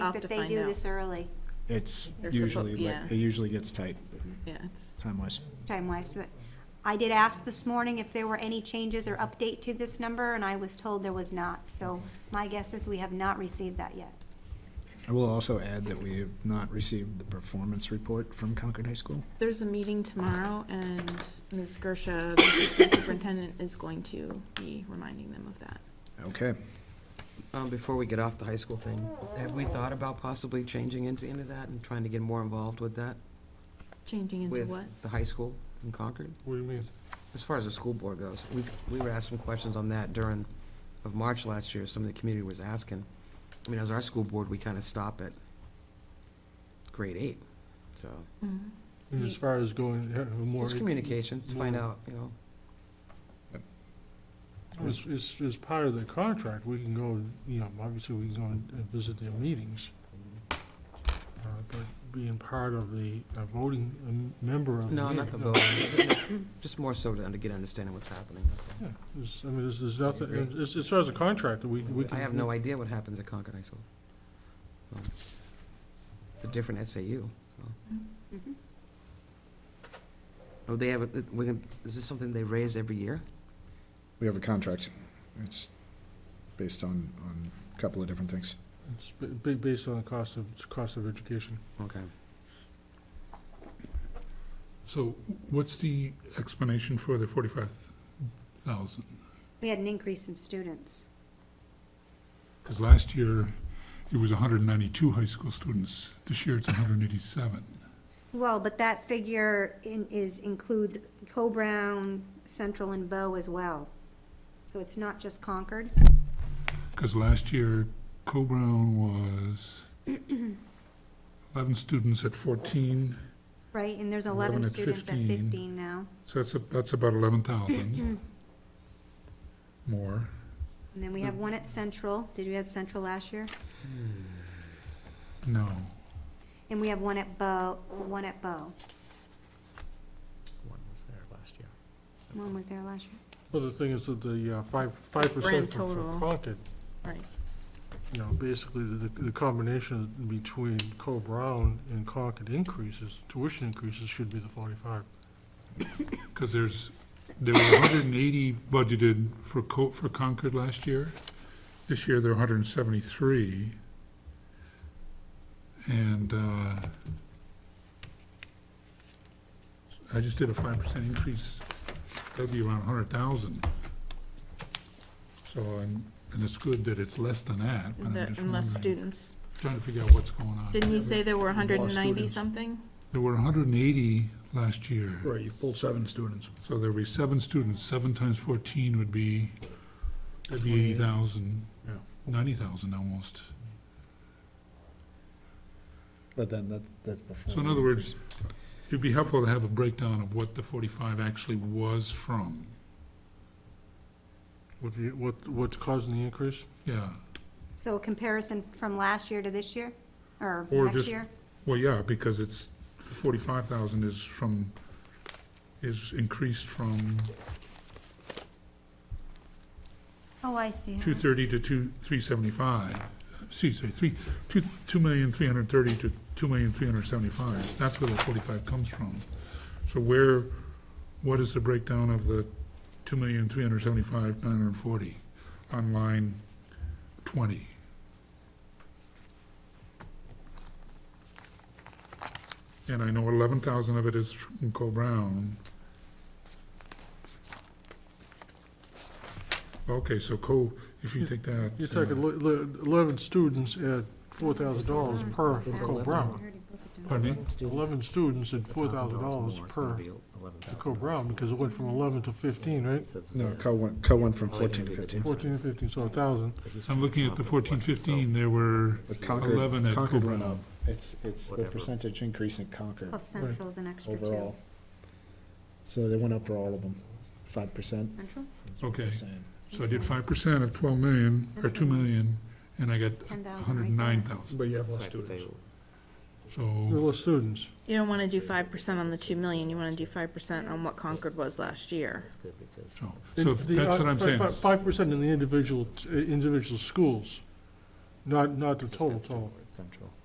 have that to they find do out. this early, It's They're suppo- usually, li- yeah. it usually gets tight, Yeah, it's, time-wise. time-wise. But I did ask this morning if there were any changes or update to this number, and I was told there was not. So my guess is we have not received that yet. I will also add that we have not received the performance report from Concord High School. there's a meeting tomorrow, and Ms. Gersha, the assistant superintendent, is going to be reminding them of that. Okay. Um, before we get off the high school thing, have we thought about possibly changing into, into that and trying to get more involved with that? Changing into With what? the high school in Concord? What do you mean? As far as the school board goes, we, we were asked some questions on that during, of March last year, some of the community was asking. I mean, as our school board, we kind of stop at grade eight, so. Mhm. And As far as going, uh, more. It's communications, to find more- out, you know, As, as, as part of the contract, we can go, you know, obviously we can go and and visit their meetings. uh, But being part of the, a voting um, member of. no, not the meeting, vote, just more so to under- get understanding what's happening. that's all. Yeah, there's- I mean, there's, there's nothing, agree. as, as far as the contract, we, we can. I have no idea what happens at Concord High School. Um, It's a different SAU. Mm-hmm. Mhm. Oh, they have, a- we can- is this something they raise every year? We have a contract. It's based on, on a couple of different things. It's ba- ba- based on the cost of, cost of education. Okay. So what's the explanation for the forty-five thousand? We had an increase in students. Because last year, it was hundred and ninety-two high school students. This year, it's hundred and eighty-seven. Well, but that figure in, is, includes Co-Brown, Central, and Bow as well. So it's not just Concord. Because last year, Co-Brown was eleven students at fourteen, Right, and there's 11 eleven at students at 15. fifteen now, so that's, a- that's about eleven Hmm. thousand more. and then we have one at Central, did we have Central last year? No, And we have one at Bow, one at Bow, One was there last year. one was there last year. Well, the thing is that the uh, five, five percent Grand for for total. Concord, Right. you know, basically the, the combination between Co-Brown and Concord increases, tuition increases should be the forty-five. because there's, there were hundred and eighty budgeted for Co, for Concord last year. This year, there are hundred and seventy-three. And, uh, I just did a five percent increase, that'd be around hundred thousand. So, and, and it's good that it's less than that, but The- I'm just And less wondering, students. trying to figure out what's going on. Didn't you say there were hundred and ninety students. something? There were hundred and eighty last year. Right, you've pulled seven students. So there'd be seven students, seven times fourteen would be, that'd be eighty thousand, Yeah. ninety thousand almost. But then that, that's before. So in other words, it'd be helpful to have a breakdown of what the forty-five actually was from, What the, what, what's causing the increase? yeah. So a comparison from last year to this year, or Or next just- year? Well, yeah, because it's, forty-five thousand is from, is increased from Oh, I see. two thirty to two, three seventy-five. Excuse me, three, two, two million, three hundred thirty to two million, three hundred seventy-five. That's where the forty-five comes from. So where, what is the breakdown of the two million, three hundred seventy-five, nine hundred forty on line twenty? And I know eleven thousand of it is from Co-Brown. Okay, so Co, if you take that. You're talking uh, le- le- eleven students at four thousand dollars per It's Co-Brown. Pardon me? Eleven students at four thousand dollars per Co-Brown, because it went from eleven to fifteen, right? No, Co went, Co went from Only fourteen to gonna be the fifteen. Fourteen to fifteen, so a thousand. I'm looking at the fourteen fifteen, there were, But Eleven Concord, at Concord went Cobrown. up. It's, it's the Whatever. percentage increase in Concord Plus Central's an extra two. overall. So they went up for all of them, five percent. Central? okay, so I did five percent of twelve million, or two million, and I got Ten thousand. hundred and nine thousand, But you have less students. so, Less students. You don't wanna do five percent on the two million, you wanna do five percent on what Concord was last year. uh, so, so if that's what I'm saying. Five percent in the individual, individual uh, schools. not, not the total, total. Central.